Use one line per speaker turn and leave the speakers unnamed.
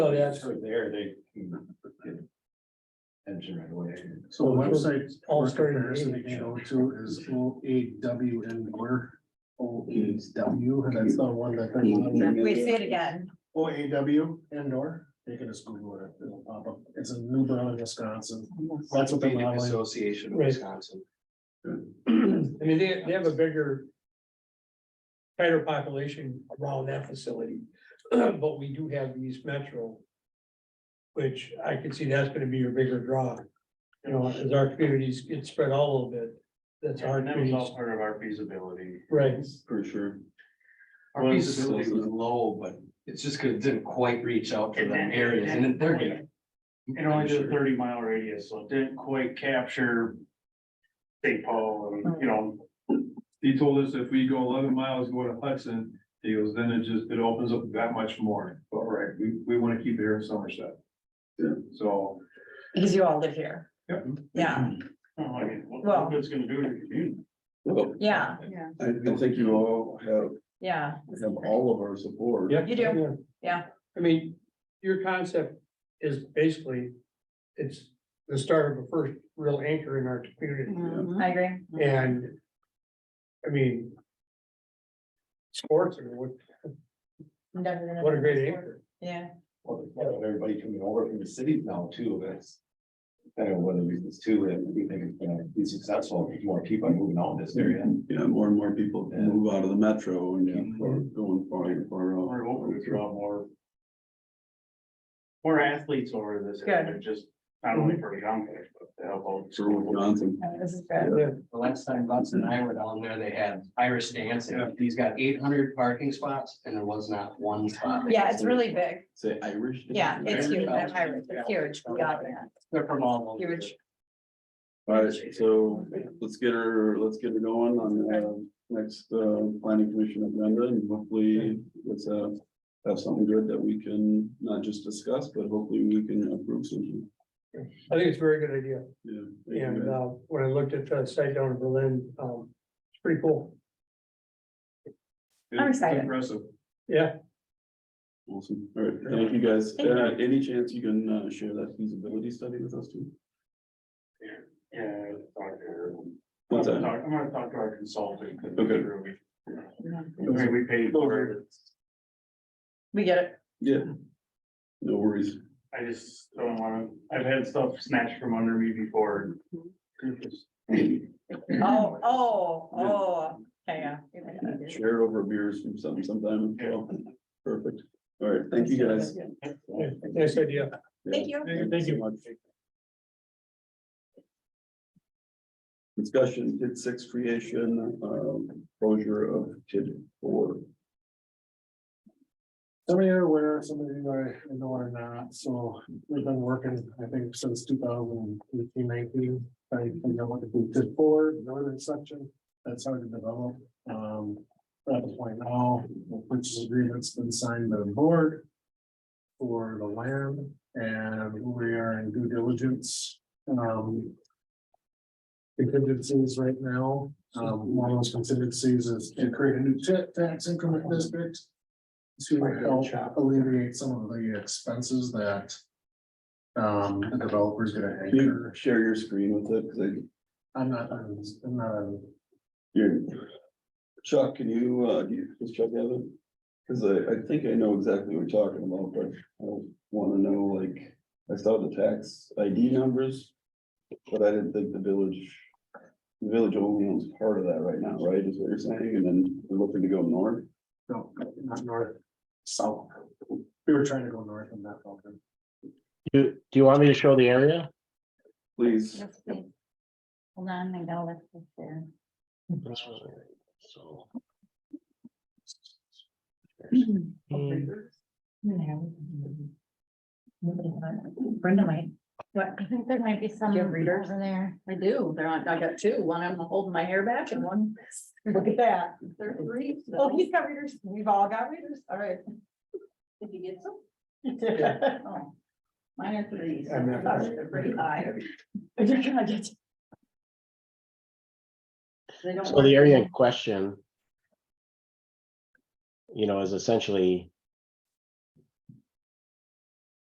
Oh, yeah,
That's right there, they. can get Engine right away.
So the website
All
for
starting to
comparison
read,
they
yeah.
show to is O A W N Miller. O A W, and that's the one that. they're using.
Wait, say it again.
O A W and or, you can just Google it, it'll pop up. It's in New Berlin, Wisconsin. That's what they're
Orthopedic
modeling.
Association of
Right.
Wisconsin.
I mean, they, they have a bigger. Tighter population around that facility, but we do have East Metro. Which I can see that's gonna be your bigger draw. You know, as our communities get spread out a little bit, that's our
And that was
communities,
all part of our feasibility.
right?
For sure.
Our feasibility was low, but it's just because it didn't quite reach out to
It
the
didn't- it
areas and then they're gonna.
didn't It only did a thirty mile radius, so it didn't quite capture. St. Paul, and, you know,
He told us if we go eleven miles, go to Hudson, he goes, then it just, it opens up that much more, but right, we, we wanna keep it here in Somerset. So,
Because you all live here.
Yep.
Yeah,
I mean, what,
Well-
what good's gonna do to the community?
yeah,
I, I think you all have,
yeah.
have all of our support.
Yeah.
You do, yeah.
I mean, your concept is basically, it's the start of a first real anchor in our community.
I agree.
And, I mean. Sports, I mean, what,
I'm never gonna-
what a great anchor.
Yeah,
Well, you know, Everybody coming over from the cities now too, that's. Kind of one of the reasons too, that we think it's gonna be successful, if more people are moving out in this area.
Yeah, more and more people
Yeah.
move out of the metro and keep going far and far out.
We're hoping to draw more. More athletes over to this, area, just not only for young, guys, but to help out.
Sir Will Johnson.
no, this is good.
The last time Butts and I were down there, they had Irish dancing. He's got eight hundred parking spots and there was not one spot.
Yeah, it's really big.
Say Irish.
Yeah, it's huge, that pirate, it's huge, we got that,
They're from all over.
Huge.
All right, so let's get her, let's get her going on the next uh, planning commission agenda and hopefully let's uh, have something good that we can not just discuss, but hopefully we can approve something.
I think it's a very good idea.
Yeah.
And, uh, when I looked at the site down in Berlin, um, it's pretty cool.
I'm excited.
Impressive.
Yeah,
Awesome. All right, thank you guys.
Thank you.
Uh, any chance you can uh, share that feasibility study with us too?
Yeah. talk to her. I'm
What's
gonna
that?
talk- I'm gonna talk to our consultant. 'cause
Okay.
we're- we- I mean, we paid for it,
Mm-hmm. We get it.
Yeah. No worries.
I just don't wanna, I've had stuff snatched from under me before.
Mm-hmm. Oh, oh, oh, yeah, yeah.
Share over beers from some sometime. as well. Perfect. All right, thank you guys.
yeah, nice idea.
Thank you.
Yeah, Thank you much. Discussion, kid six creation, um, closure of kid four.
Some of you are aware, some of you are, I know are not, so we've been working, I think, since 2018, 19, I think I want to do did four, northern section, that's hard to develop. Um, at the point now, the purchase agreement's been signed by the board. For the land, and we are in due diligence, um. Contingencies right now, um, one of those contingencies is to create a new ta- tax increment district to help alleviate some of the expenses that. Um, the developer's gonna
Can you
anchor,
share your screen with it? Cause I,
I'm not, I'm not,
you Chuck, can you, uh, do you, does Chuck have it? Cause I, I think I know exactly what you're talking about, but I wanna know, like, I saw the tax ID numbers. But I didn't think the village, the village only owns part of that right now, right, is what you're saying, and then we're looking to go north?
no, not north, south. We were trying to go north and that felt good.
Do, do you want me to show the area?
Please,
Hold on, I gotta let this there.
So,
mm-hmm.
Brenda might. What? I think there might be some. readers in there.
I do. There aren't, I got two. One, I'm holding my hair back and one,
Look at that.
they're three.
Oh, he's got readers. We've all got readers. All right.
Did you get some?
Yeah.
Oh, Mine are threes.
I'm not-
They're pretty high.
You're gonna get-
They don't
so
work.
the area in question. You know, is essentially